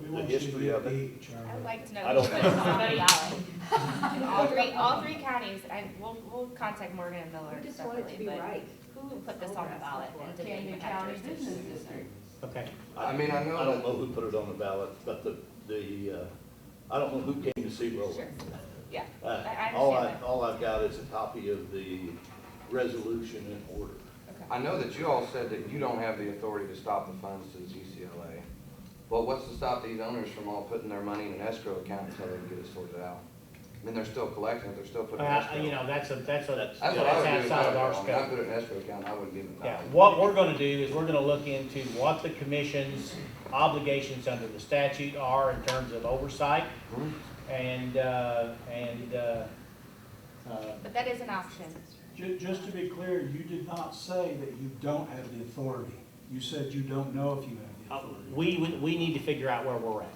We the want you to history of it. be I would Charlie. like to know. I don't- which one's somebody else. All three, all three counties, I, we'll, we'll contact Morgan and Miller We just want it to separately, be but right. who put this on the ballot? and did they Camden even have County jurisdiction? Business District. Okay, I mean, I know I don't that- know who put it on the ballot, but the, the, uh, I don't know who came to see Sure. Roland. Yeah, Uh, I All I, understand that. all I've got is a copy of the resolution and order. I know that you all said that you don't have the authority to stop the funds to the GCLA. But what's to stop these owners from all putting their money in an escrow account until they can get it sorted out? I mean, they're still collecting it, they're still But putting it in I- escrow. Uh, you know, that's a, that's a, That's- That's that's what I would do. if I outside of were our them. When I scope. put it in escrow account, I wouldn't give them. Yeah, nothing. what we're gonna do is we're gonna look into what the commission's obligations under the statute are in terms of oversight Mhm. and, uh, and, uh, uh, But that is an option. Ju- just to be clear, you did not say that you don't have the authority. You said you don't know if you have the Oh. uh, authority. we, we- we need to figure out where we're at.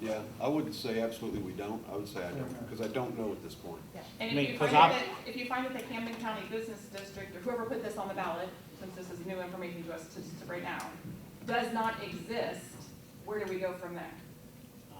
Yeah, I wouldn't say absolutely we don't, I would say I don't, because I don't know at this point. I And mean, if you 'cause find out I've- that, if you find that the Camden County Business District, or whoever put this on the ballot, since this is new information to us to, to right now, does not exist, where do we go from there?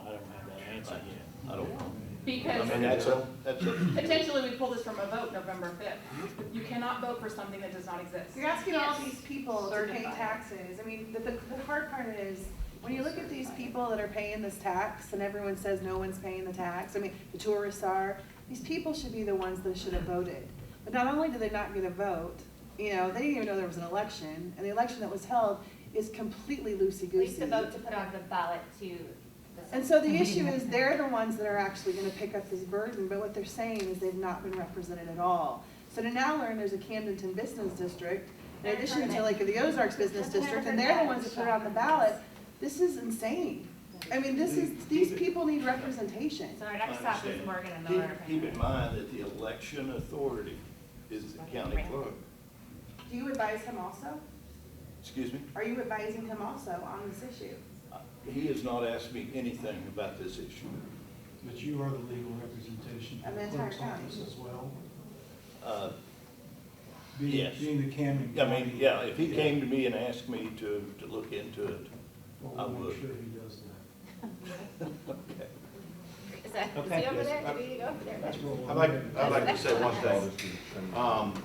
I don't have that answer yet. I don't, I Because mean, that's a, that's a. potentially we pull this from a vote November fifth. You cannot vote for something that does not exist. You're asking all Yes. these people to pay Certified. taxes. I mean, the, the the hard part is, when you look at these people that are paying this tax and everyone says no one's paying the tax, I mean, the tourists are, these people should be the ones that should have voted. But not only did they not get a vote, you know, they didn't even know there was an election, and the election that was held is completely At least the loosey-goosey. vote to put on the ballot to. And so the issue is, they're the ones that are actually gonna pick up this burden, but what they're saying is they've not been represented at all. So to now learn there's a Camdenton Business District, in addition to like the Ozarks Business District, and they're the ones that put it on the ballot, this is insane. I mean, this is, these people need representation. So our next stop is Morgan and Keep, Miller. keep in mind that the election authority is the county clerk. Do you advise him also? Excuse me? Are you advising him also on this issue? He has not asked me anything about this issue. But you are the legal representation for Of the the entire clerk's county. office as well. Uh, Being- Yes. Being the Camden I County. mean, yeah, if he came to me and asked me to, to look into it, I Well, we'll would. make sure he does that. Is that, is Okay. he over there? Do we need to go over there? That's what we'll I'd like, do. I'd like to say one thing. Um,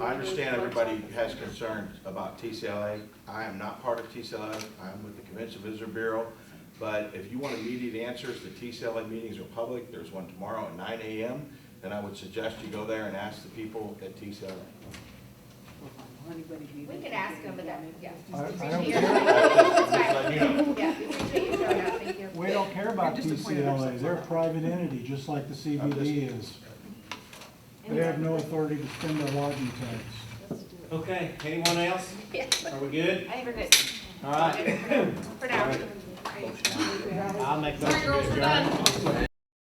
I understand everybody has concerns about TCLA. I am not part of TCLA. I'm with the Convention Visitor Bureau. But if you want immediate answers, the TCLA meetings are public. There's one tomorrow at nine AM. Then I would suggest you go there and ask the people at TCLA. We can ask him, but that, yeah. I- I don't Appreciate your- care. It's But, fine. you know, Yeah, we appreciate you showing up. Thank you. We don't care about You're disappointed or PCLA, they're a private entity, just like the CBD is. They have no authority to spend their lodging tax. Okay, anyone else? Yeah. Are we good? I think we're good. All right, For now. I'll make a motion to adjourn. Hey,